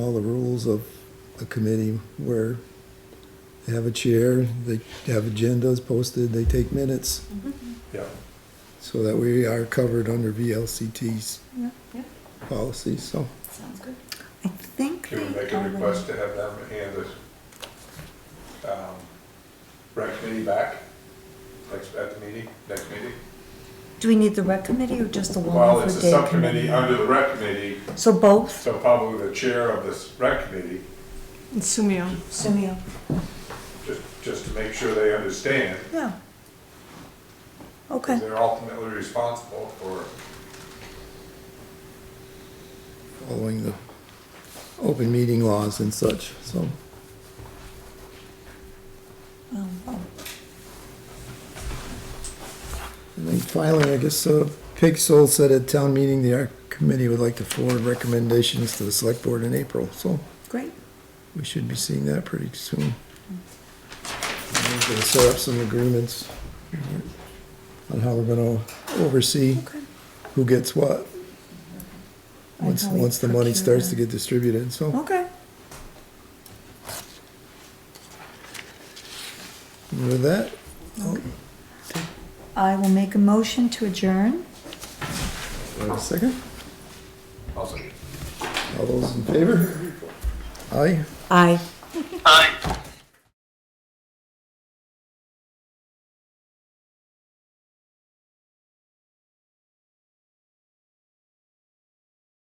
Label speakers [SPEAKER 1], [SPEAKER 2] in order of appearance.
[SPEAKER 1] all the rules of a committee where they have a chair, they have agendas posted, they take minutes,
[SPEAKER 2] Yeah,
[SPEAKER 1] so that we are covered under VLCT's
[SPEAKER 3] Yeah,
[SPEAKER 4] yeah.
[SPEAKER 1] policies, so.
[SPEAKER 4] Sounds good.
[SPEAKER 3] I think
[SPEAKER 2] can we
[SPEAKER 3] they
[SPEAKER 2] make a
[SPEAKER 3] already-
[SPEAKER 2] request to have them hand the, um, rec committee back, next, at the meeting, next meeting?
[SPEAKER 3] Do we need the rec committee or just the
[SPEAKER 2] Well,
[SPEAKER 3] Wallingford
[SPEAKER 2] it's a
[SPEAKER 3] Day
[SPEAKER 2] subcommittee
[SPEAKER 3] committee?
[SPEAKER 2] under the rec committee,
[SPEAKER 3] So both?
[SPEAKER 2] so probably the chair of this rec committee,
[SPEAKER 5] Sumio.
[SPEAKER 3] Sumio.
[SPEAKER 2] just, just to make sure they understand,
[SPEAKER 3] Yeah. Okay,
[SPEAKER 2] 'cause they're ultimately responsible for,
[SPEAKER 1] following the open meeting laws and such, so.
[SPEAKER 3] Um, oh,
[SPEAKER 1] And then finally, I guess, uh, Pig Soul said at town meeting, the art committee would like to forward recommendations to the select board in April, so
[SPEAKER 3] great.
[SPEAKER 1] we should be seeing that pretty soon. And We're gonna set up some agreements on how we're gonna oversee
[SPEAKER 3] Okay.
[SPEAKER 1] who gets what,
[SPEAKER 3] And
[SPEAKER 1] once,
[SPEAKER 3] how we
[SPEAKER 1] once the money
[SPEAKER 3] procure Oh.
[SPEAKER 1] starts to
[SPEAKER 3] them.
[SPEAKER 1] get distributed, so.
[SPEAKER 3] Okay,
[SPEAKER 1] With that,
[SPEAKER 3] Oh.
[SPEAKER 1] I'll
[SPEAKER 3] I will make a motion to adjourn.
[SPEAKER 1] do I have a second.
[SPEAKER 2] also,
[SPEAKER 1] All those in favor? Aye.
[SPEAKER 3] Aye.
[SPEAKER 6] Aye.